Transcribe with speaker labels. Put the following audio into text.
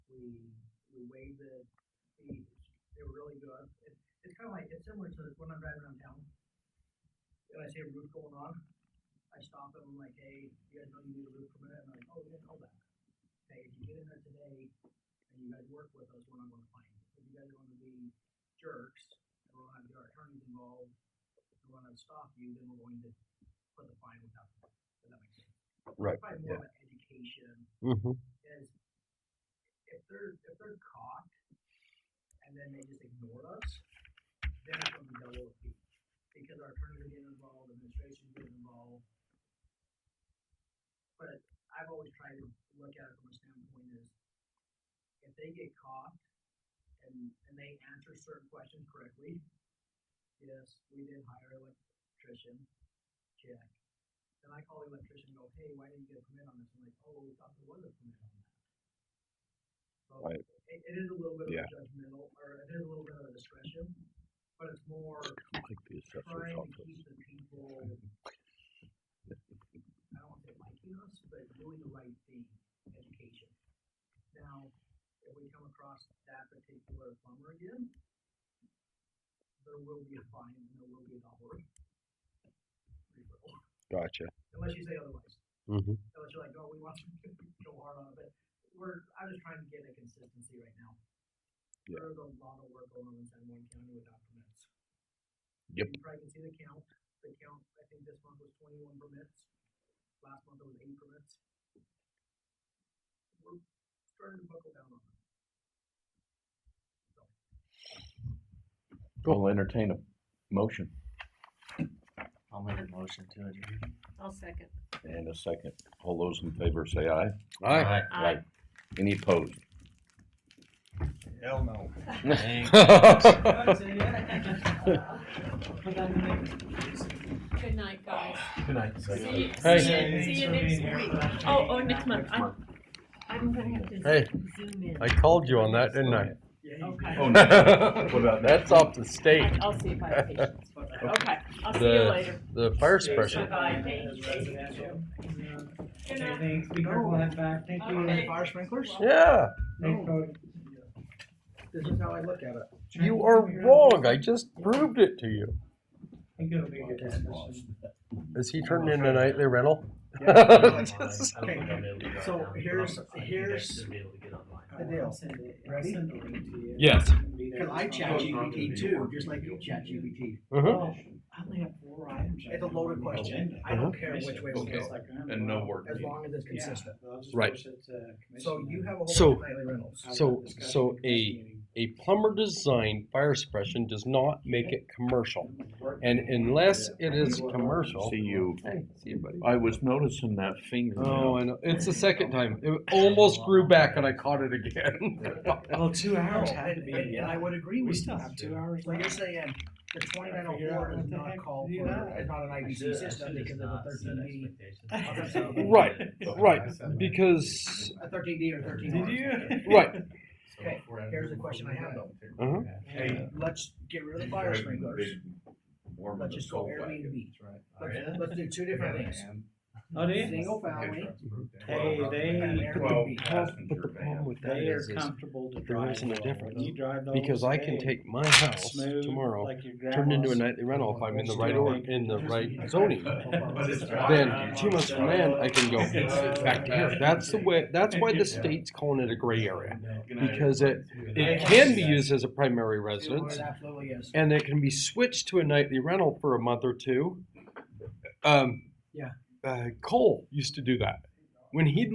Speaker 1: waive the fees, they were really good. It, it's kind of like, it's similar to when I'm driving around town. And I see a roof going on, I stop them, I'm like, hey, you guys know you need a roof permit, and I'm like, oh, yeah, know that. Hey, if you get in there today, and you guys work with us, we're not gonna find you. If you guys are gonna be jerks, and we're gonna have our attorneys involved, and we're gonna stop you, then we're going to put the fine without, if that makes sense.
Speaker 2: Right,
Speaker 1: Probably more like education,
Speaker 2: Mm-hmm.
Speaker 1: is if they're, if they're caught and then they just ignore us, then it's gonna be double the fee. Because our attorneys are getting involved, administration getting involved. But I've always tried to look at it from a standpoint is if they get caught and, and they answer certain questions correctly, yes, we did hire an electrician, check. Then I call the electrician and go, hey, why didn't you get a permit on this? I'm like, oh, we thought there was a permit on that. So
Speaker 2: Right.
Speaker 1: it, it is a little bit of
Speaker 2: Yeah.
Speaker 1: a judgmental, or it is a little bit of a discretion, but it's more
Speaker 2: Like the assessor's
Speaker 1: trying to
Speaker 2: office.
Speaker 1: keep the people, I don't want to say liking us, but doing the right thing, education. Now, if we come across that particular plumber again, there will be a fine and there will be a dollar. Referral.
Speaker 2: Gotcha.
Speaker 1: Unless you say otherwise,
Speaker 2: Mm-hmm.
Speaker 1: unless you're like, oh, we want to go hard on it, but we're, I'm just trying to get a consistency right now.
Speaker 2: Yeah.
Speaker 1: There's a lot of work going on in San Juan County without permits.
Speaker 2: Yep.
Speaker 1: You probably can see the count, the count, I think this month was twenty-one permits, last month it was eight permits. We're starting to buckle down on it.
Speaker 3: We'll entertain a motion
Speaker 4: I'll make a motion to adjourn.
Speaker 5: I'll second.
Speaker 3: and a second. All those in favor say aye.
Speaker 5: Aye.
Speaker 3: Any opposed?
Speaker 4: Hell no.
Speaker 5: Good night, guys.
Speaker 4: Good night.
Speaker 5: See you,
Speaker 2: Hey.
Speaker 5: see you, see you next week. Oh, oh, next month. I'm, I'm gonna have to
Speaker 2: Hey,
Speaker 5: zoom in.
Speaker 2: I called you on that, didn't I?
Speaker 5: Okay.
Speaker 3: Oh, no. What about that?
Speaker 2: That's off the state.
Speaker 5: I- I'll see if I have patience for that. Okay, I'll see you
Speaker 2: The-
Speaker 5: later.
Speaker 2: The fire suppression.
Speaker 5: Bye-bye. Good
Speaker 6: Okay,
Speaker 5: night.
Speaker 6: thanks. Be careful on that back. Thank you.
Speaker 5: Okay.
Speaker 1: Fire sprinklers?
Speaker 2: Yeah,
Speaker 6: Thanks, Cody.
Speaker 1: This is how I look at it.
Speaker 2: you are wrong. I just proved it to you.
Speaker 6: I think it'll be a good discussion.
Speaker 2: Is he turning in a nightly rental?
Speaker 1: So here's- here's
Speaker 6: I will send it. I'll
Speaker 1: Ready?
Speaker 6: send the link to you.
Speaker 2: Yes.
Speaker 1: Cause I chat GPT too, just like you chat GPT.
Speaker 2: Mm-hmm.
Speaker 6: Well, I only have four items.
Speaker 1: It's a loaded question. I
Speaker 2: Uh-huh.
Speaker 1: don't care which way it um,
Speaker 3: Okay.
Speaker 1: goes,
Speaker 3: And no work.
Speaker 1: as long as it's
Speaker 6: Yeah.
Speaker 1: consistent.
Speaker 6: I'll just
Speaker 2: Right.
Speaker 1: uh,
Speaker 6: push it to
Speaker 1: So
Speaker 6: commission
Speaker 1: you
Speaker 6: then.
Speaker 1: have a whole
Speaker 2: So-
Speaker 1: bunch of nightly rentals.
Speaker 6: Have
Speaker 2: so-
Speaker 6: that discussion
Speaker 2: so
Speaker 6: at the
Speaker 2: a-
Speaker 6: meeting.
Speaker 2: A plumber designed fire suppression does not make it commercial.
Speaker 6: Work.
Speaker 2: And unless it is commercial.
Speaker 3: See you.
Speaker 2: Hey, see you, buddy.
Speaker 3: I was noticing that
Speaker 2: Oh,
Speaker 3: fingernail.
Speaker 2: I know. It's the second time. It almost grew back and I caught it again.
Speaker 6: Well, two hours
Speaker 1: No,
Speaker 6: Oh, had to be,
Speaker 1: And and I
Speaker 6: yeah.
Speaker 1: would agree
Speaker 6: We
Speaker 1: with
Speaker 6: still
Speaker 1: you.
Speaker 6: have two hours
Speaker 1: Like you're
Speaker 6: left.
Speaker 1: saying, the twenty-nine oh
Speaker 6: Figure out
Speaker 1: four
Speaker 6: what
Speaker 1: does
Speaker 6: the
Speaker 1: not
Speaker 6: heck
Speaker 1: call
Speaker 6: to do
Speaker 1: for,
Speaker 6: now.
Speaker 1: it's not an IBC system because of a thirteen D,
Speaker 2: Right, right, because,
Speaker 1: a thirteen D or thirteen
Speaker 6: Did
Speaker 1: R.
Speaker 6: you?
Speaker 2: right,
Speaker 1: Okay, here's the question I have though.
Speaker 2: uh-huh.
Speaker 1: Hey, let's get rid of the fire sprinklers, let's just go Airbnb. Let's, let's do two different things.
Speaker 6: Oh, do you?
Speaker 1: Single family.
Speaker 6: Hey, they,
Speaker 1: Well,
Speaker 2: But the problem with that
Speaker 6: they are
Speaker 2: is, is
Speaker 6: comfortable to
Speaker 2: but there
Speaker 6: drive.
Speaker 2: isn't a
Speaker 6: though.
Speaker 2: difference,
Speaker 6: You drive those.
Speaker 2: because I can take my house
Speaker 6: Smooth,
Speaker 2: tomorrow,
Speaker 6: like your
Speaker 2: turn into a
Speaker 6: grandma's.
Speaker 2: nightly rental if I'm in the right or, in the right zoning. Then
Speaker 7: Then
Speaker 2: two months from then, I can go back to here. That's the way, that's why the state's calling it a gray area. Because it, it can be used as a primary residence,
Speaker 1: It absolutely is.
Speaker 2: and it can be switched to a nightly rental for a month or two. Um,
Speaker 1: Yeah.
Speaker 2: Uh, Cole used to do that. When he'd